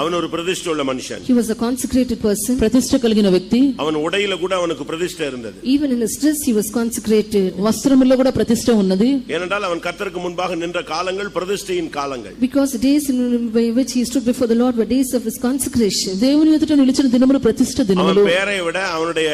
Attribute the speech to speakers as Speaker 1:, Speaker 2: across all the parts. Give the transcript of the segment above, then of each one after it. Speaker 1: அவன் ஒரு பிரதிஷ்டை உள்ள மனுஷன்
Speaker 2: He was a consecrated person.
Speaker 3: ప్రతిష్ట కలిగిన వ్యక్తి
Speaker 1: அவன் உடையில கூட அவனுக்கு பிரதிஷ்டை இருந்தது
Speaker 2: Even in his dress, he was consecrated.
Speaker 3: వస్త్రములో కూడా ప్రతిష్ట ఉన్నది
Speaker 1: ஏனென்றால் அவன் கர்த்தருக்கு முன்பாக நின்ற காலங்கள் பிரதிஷ்டையின் காலங்கள்
Speaker 2: Because the days in by which he stood before the Lord were days of his consecration.
Speaker 3: దేవుని ఎదుట నిలిచిన దినములు ప్రతిష్ట
Speaker 1: அவன்
Speaker 3: దినములు
Speaker 1: பெயரை விட அவனுடைய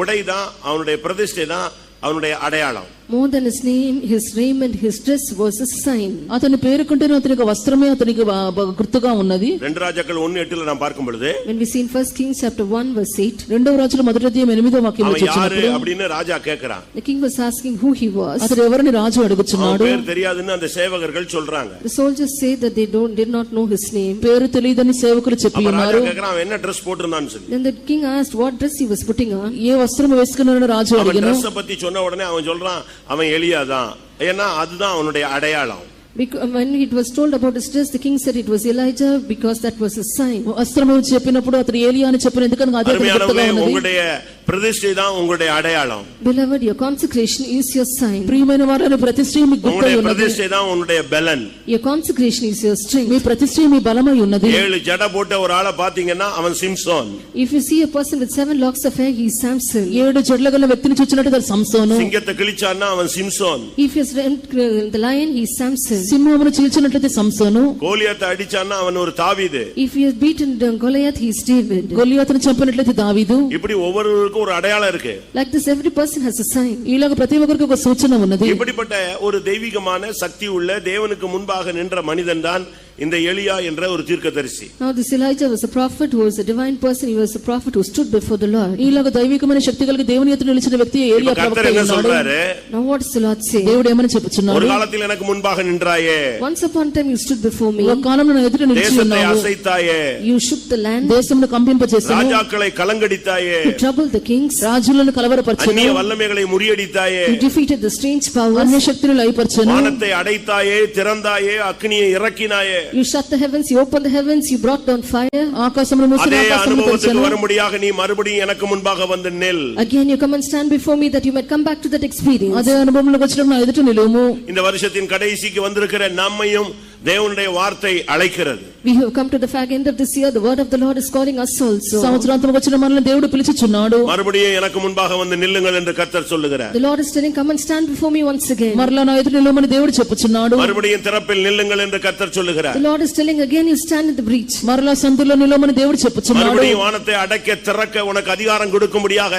Speaker 1: உடை தான் அவனுடைய பிரதிஷ்டை தான் அவனுடைய அடையாளம்
Speaker 2: More than his name, his raiment, his dress was a sign.
Speaker 3: అతని పేరుకుంటేనే అతని యొక్క వస్త్రమే అతనికి బ- బ- గుర్తుగా ఉన్నది
Speaker 1: ரெண்டு ராஜாக்கள் ஒன்னு எட்டுல நான் பார்க்கும் பொழுது
Speaker 2: When we see in 1 Kings chapter 1 verse 8,
Speaker 3: రెండవ రాజుల మొదటి అధ్యాయం ఎనిమిదో వాక్యం
Speaker 1: அவன் யாரு
Speaker 3: వచ్చినప్పుడు
Speaker 1: அப்படின்னு రాஜா கேக்குறான்
Speaker 2: the king was asking who he was.
Speaker 3: అతడు ఎవరిని రాజు
Speaker 1: அவன்
Speaker 3: అడుగుచున్నాడు
Speaker 1: பேர் தெரியாதுன்னு அந்த சேவகர்கள் சொல்றாங்க
Speaker 2: The soldiers say that they don't, did not know his name.
Speaker 3: పేరు తెలియదని సేవకులు చెప్పి
Speaker 1: அப்ப ராஜா
Speaker 3: ఉన్నారు
Speaker 1: கேக்குறான் அவன் என்ன ட்ரெஸ் போட்டிருந்தான்னு சொல்லி
Speaker 2: Then the king asked what dress he was putting on.
Speaker 3: ఏ వస్త్రం వేసుకున్నాడని రాజు
Speaker 1: அவன்
Speaker 3: అడిగిన
Speaker 1: ட்ரெஸ் பத்தி சொன்ன உடனே அவன் சொல்றான் அவன் எளியாதான் ஏன்னா அதுதான் அவனுடைய அடையாளம்
Speaker 2: Because uh, when it was told about his dress, the king said it was Elijah because that was his sign.
Speaker 3: వస్త్రము చెప్పినప్పుడు అతడు ఏలియా అని చెప్పిన ఎందుకనగా అదే అతనికి గుర్తుగా
Speaker 1: அருமையானவர்களே
Speaker 3: ఉన్నది
Speaker 1: உங்களுடைய பிரதிஷ்டை தான் உங்களுடைய அடையாளம்
Speaker 2: Beloved, your consecration is your sign.
Speaker 3: ప్రియమైన వారిని ప్రతిష్ట మీకు గుర్తై
Speaker 1: உங்களுடைய
Speaker 3: ఉన్నది
Speaker 1: பிரதிஷ்டை தான் உன்னுடைய பலன்
Speaker 2: Your consecration is your
Speaker 3: me
Speaker 2: strength.
Speaker 3: ప్రతిష్ట మీ బలమై ఉన్నది
Speaker 1: ஏழு ஜடை போட்ட ஒரு ஆளை பாத்தீங்கன்னா அவன் Samson
Speaker 2: If you see a person with seven locks of hair, he is Samson.
Speaker 3: ఏడు జడ్ల గల వ్యక్తిని చూచినట్టు తన సంసోను
Speaker 1: சிங்கத்தை கிழிச்சான்னா அவன் Samson
Speaker 2: If he has rent- uh, the lion, he is Samson.
Speaker 3: సింహమును చీల్చినట్లయితే సంసోను
Speaker 1: கோலியத்தை அடிச்சான்னா அவன் ஒரு தாவீது
Speaker 2: If he has beaten down Goliath, he is David.
Speaker 3: గొల్లియాతను చంపినట్లయితే దావీదు
Speaker 1: இப்படி ஒவ்வொருவருக்கும் ஒரு அடையாளம் இருக்கு
Speaker 2: Like this, every person has a sign.
Speaker 3: ఇలాగ ప్రతి ఒక్కరికి ఒక సూచన ఉన్నది
Speaker 1: இப்படிப்பட்ட ஒரு தெய்வீகமான சக்தி உள்ள தேவனுக்கு முன்பாக நின்ற மனிதன் தான் இந்த எலியா என்ற ஒரு தீர்க்கதரிசி
Speaker 2: Now this Elijah was a prophet who was a divine person. He was a prophet who stood before the Lord.
Speaker 3: ఇలాగ దైవికమైన శక్తి కలిగి దేవుని ఎదుట నిలిచిన వ్యక్తి ఏలియా
Speaker 1: இப்ப
Speaker 3: ప్రవక్త
Speaker 1: கர்த்தர் என்ன
Speaker 3: ఉన్నాడు
Speaker 1: சொல்றாரு
Speaker 2: Now what does the Lord say?
Speaker 3: దేవుడు ఏమని
Speaker 1: ஒரு
Speaker 3: చెప్పుచున్నాడు
Speaker 1: காலத்தில் எனக்கு முன்பாக நின்றாயே
Speaker 2: Once upon a time you stood before
Speaker 3: ఒక
Speaker 2: me.
Speaker 3: కాలంలో నా ఎదుట నిలిచి
Speaker 1: தேசத்தை
Speaker 3: ఉన్నావు
Speaker 1: அசைத்தாயே
Speaker 2: You shook the land.
Speaker 3: దేశమును కంపింపజేసాను
Speaker 1: ராஜாக்களை கலங்கடித்தாயே
Speaker 2: You troubled the kings.
Speaker 3: రాజులను
Speaker 1: அந்நிய
Speaker 3: కలవరపరచను
Speaker 1: வல்லமைகளை ముறியடித்தாயே
Speaker 2: You defeated the strange
Speaker 3: అన్య
Speaker 2: powers.
Speaker 3: శక్తులు లయపరచను
Speaker 1: வானத்தை அடைத்தாயே திறந்தாயே அக்னியை இறக்கினாயே
Speaker 2: You shut the heavens. You opened the heavens. You brought down fire.
Speaker 3: ఆకాశమును మూసిన
Speaker 1: அதே
Speaker 3: ఆకాశమును
Speaker 1: அனுபவத்துக்கு
Speaker 3: తెరిచెను
Speaker 1: வரும்படியாக நீ மறுபடியும் எனக்கு முன்பாக வந்து நெல்
Speaker 2: Again you come and stand before me that you might come back to that experience.
Speaker 3: అదే అనుభవంలోకి వచ్చిన నా ఎదుట నిలువుము
Speaker 1: இந்த வருஷத்தின் கடைசிக்கு வந்திருக்கிற நம்மையும் தேவனுடைய வார்த்தை அழைக்கிறது
Speaker 2: We have come to the fag end of this year. The word of the Lord is calling us also.
Speaker 3: సంవత్సరాంతం వచ్చిన మనల్ని దేవుడు పిలిచిచున్నాడు
Speaker 1: மறுபடியும் எனக்கு முன்பாக வந்து நில்லுங்கள் என்று கர்த்தர் சொல்லுகிறார்
Speaker 2: The Lord is telling, come and stand before me once again.
Speaker 3: మరలా నా ఎదుట నిలువమని దేవుడు చెప్పుచున్నాడు
Speaker 1: மறுபடியும் திறப்பில் நில்லுங்கள் என்று கர்த்தர்
Speaker 2: The
Speaker 1: சொல்லுகிறார்
Speaker 2: Lord is telling again, you stand in the breach.
Speaker 3: మరలా సందులో నిలువమని దేవుడు చెప్పుచున్నాడు
Speaker 1: மறுபடியும் வானத்தை அடைக்க திறக்க உனக்கு அதிகாரம் கொடுக்கும்படியாக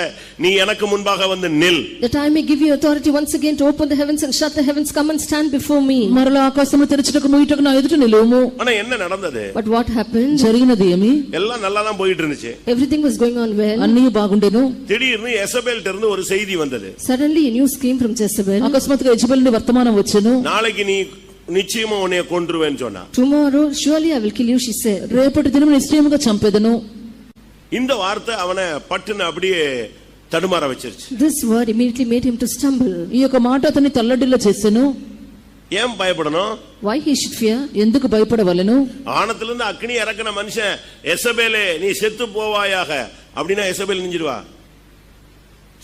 Speaker 1: நீ எனக்கு முன்பாக வந்து நில்
Speaker 2: That I may give you authority once again to open the heavens and shut the heavens. Come and stand before me.
Speaker 3: మరలా ఆకాశము తెరచుటకు ముయ్యుటకు నా ఎదుట నిలువము
Speaker 1: ஆனா என்ன நடந்தது
Speaker 2: But what happened?
Speaker 3: జరిగినది ఏమి
Speaker 1: எல்லாம் நல்லா தான் போயிட்டு இருந்துச்சு
Speaker 2: Everything was going on well.
Speaker 3: అన్నీ బాగుండేను
Speaker 1: திடீர்னு எசபேல்ட்ட இருந்து ஒரு செய்தி வந்தது
Speaker 2: Suddenly a news came from Jezebel.
Speaker 3: అకస్మాత్తుగా యజబెల్ నుండి వర్తమానం వచ్చెను
Speaker 1: நாளைக்கு நீ நிச்சயமா உன்னைய கொன்றுவேன்னு சொன்னா
Speaker 2: Tomorrow, surely I will kill you, she said.
Speaker 3: రేపటి దినం నిశ్చయముగా చంపెదను
Speaker 1: இந்த வார்த்தை அவனை பட்டுன்னு அப்படியே தடுமாற வச்சிருச்சு
Speaker 2: This word immediately made him to stumble.
Speaker 3: ఈ యొక్క మాట అతన్ని తల్లడిల్లా చేసెను
Speaker 1: ஏன் பயப்படணும்
Speaker 2: Why he should fear?
Speaker 3: ఎందుకు భయపడవలెను
Speaker 1: ஆனத்திலிருந்து அக்னி இறக்குன மனுஷன் எசபேலே நீ செத்து போவாயாக அப்படின்னா Jezebel நெஞ்சிருவா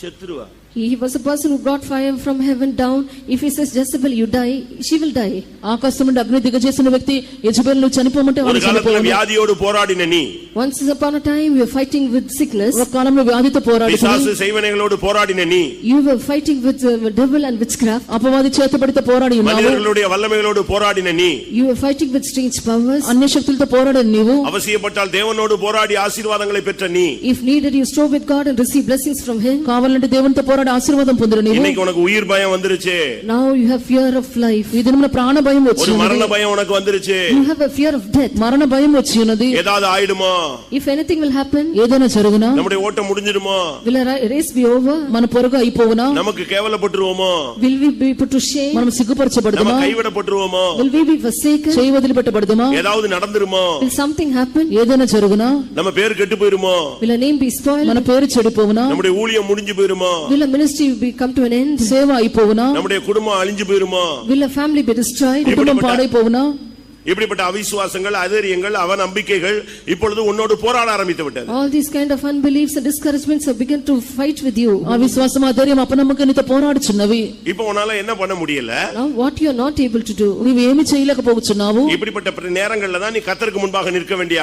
Speaker 1: செத்துருவா
Speaker 2: He he was a person who brought fire from heaven down. If he says Jezebel, you die, she will die.
Speaker 3: ఆకాశం నుండి అగ్ని దిగజేసిన వ్యక్తి యజబెల్ నువ్వు చనిపోమంటే
Speaker 1: ஒரு
Speaker 3: వాడు
Speaker 1: காலத்துல
Speaker 3: చనిపోవను
Speaker 1: வியாதியோடு போராடின நீ
Speaker 2: Once upon a time, you were fighting with
Speaker 3: ఒక
Speaker 2: sickness.
Speaker 3: కాలంలో వ్యాధితో పోరాడుతుంది
Speaker 1: பிசாசு செய்வனைகளோடு போராடின நீ
Speaker 2: You were fighting with uh, devil and witchcraft.
Speaker 3: అపవాది చేతబడితో పోరాడి ఉన్నావు
Speaker 1: மனிதர்களுடைய வல்லமைகளோடு போராடின நீ
Speaker 2: You were fighting with strange powers.
Speaker 3: అన్య శక్తులతో పోరాడని నీవు
Speaker 1: அவசியப்பட்டால் தேவனோடு போராடி ஆசீர்வாதங்களை பெற்ற நீ
Speaker 2: If needed, you strove with God and received blessings from Him.
Speaker 3: కావాలంటే దేవునితో పోరాడి ఆశీర్వాదం పొందిన నీవు
Speaker 1: இன்னைக்கு உனக்கு உயிர் பயம் வந்துருச்சு
Speaker 2: Now you have fear of life.
Speaker 3: ఈ దినమున ప్రాణ భయం వచ్చి
Speaker 1: ஒரு
Speaker 3: ఉన్నది.
Speaker 1: மரண பயம் உனக்கு வந்துருச்சு
Speaker 2: You have a fear of death.
Speaker 3: మరణ భయం వచ్చి ఉన్నది
Speaker 1: ஏதாவது ஆயிடுமோ
Speaker 2: If anything will happen,
Speaker 3: ఏదైనా జరుగునా
Speaker 1: நம்முடைய ஓட்டம் முடிஞ்சிடுமో
Speaker 2: will a ri- race be over?
Speaker 3: మన పొరుగు అయిపోవునా
Speaker 1: நமக்கு கேவலப்பட்டுருவோமோ
Speaker 2: Will we be put to shame?
Speaker 3: మనం
Speaker 1: நம்ம
Speaker 3: సిగ్గుపరచబడదుమా
Speaker 1: கைவிடப்பட்டுருவோமో
Speaker 2: Will we be forsaken?
Speaker 3: చేయి వదిలిపెట్టబడదుమా
Speaker 1: ஏதாவது நடந்துருமோ
Speaker 2: Will something happen?
Speaker 3: ఏదైనా జరుగునా
Speaker 1: நம்ம பேர் கெட்டு போயிருமோ
Speaker 2: Will a name be spoiled?
Speaker 3: మన పేరు చెడిపోవునా
Speaker 1: நம்முடைய ஊழியம் முடிஞ்சு போயிருமோ
Speaker 2: Will a ministry be come to an end?
Speaker 3: సేవ అయిపోవునా
Speaker 1: நம்முடைய குடும்பம் அழிஞ்சு போயிருமோ
Speaker 2: Will a family be destroyed?
Speaker 3: కుటుంబం పాడైపోవునా
Speaker 1: இப்படிப்பட்ட அவிசுவாசங்கள் அதரியங்கள் அவநம்பிக்கைகள் இப்பொழுது உன்னோடு போராட ஆரம்பித்து விட்டது
Speaker 2: All these kind of unbeliefs and discouragements have begun to fight with you.
Speaker 3: అవిశ్వాసం అధైర్యం అపనమ్మకం నీతో పోరాడుచున్నవి
Speaker 1: இப்போ உன்னால என்ன பண்ண முடியல
Speaker 2: Now what you are not able to do.
Speaker 3: నీవేమి చేయలేకపోతున్నావు
Speaker 1: இப்படிப்பட்ட நேரங்கள்ல தான் நீ கத்தருக்கு முன்பாக நிற்க வேண்டிய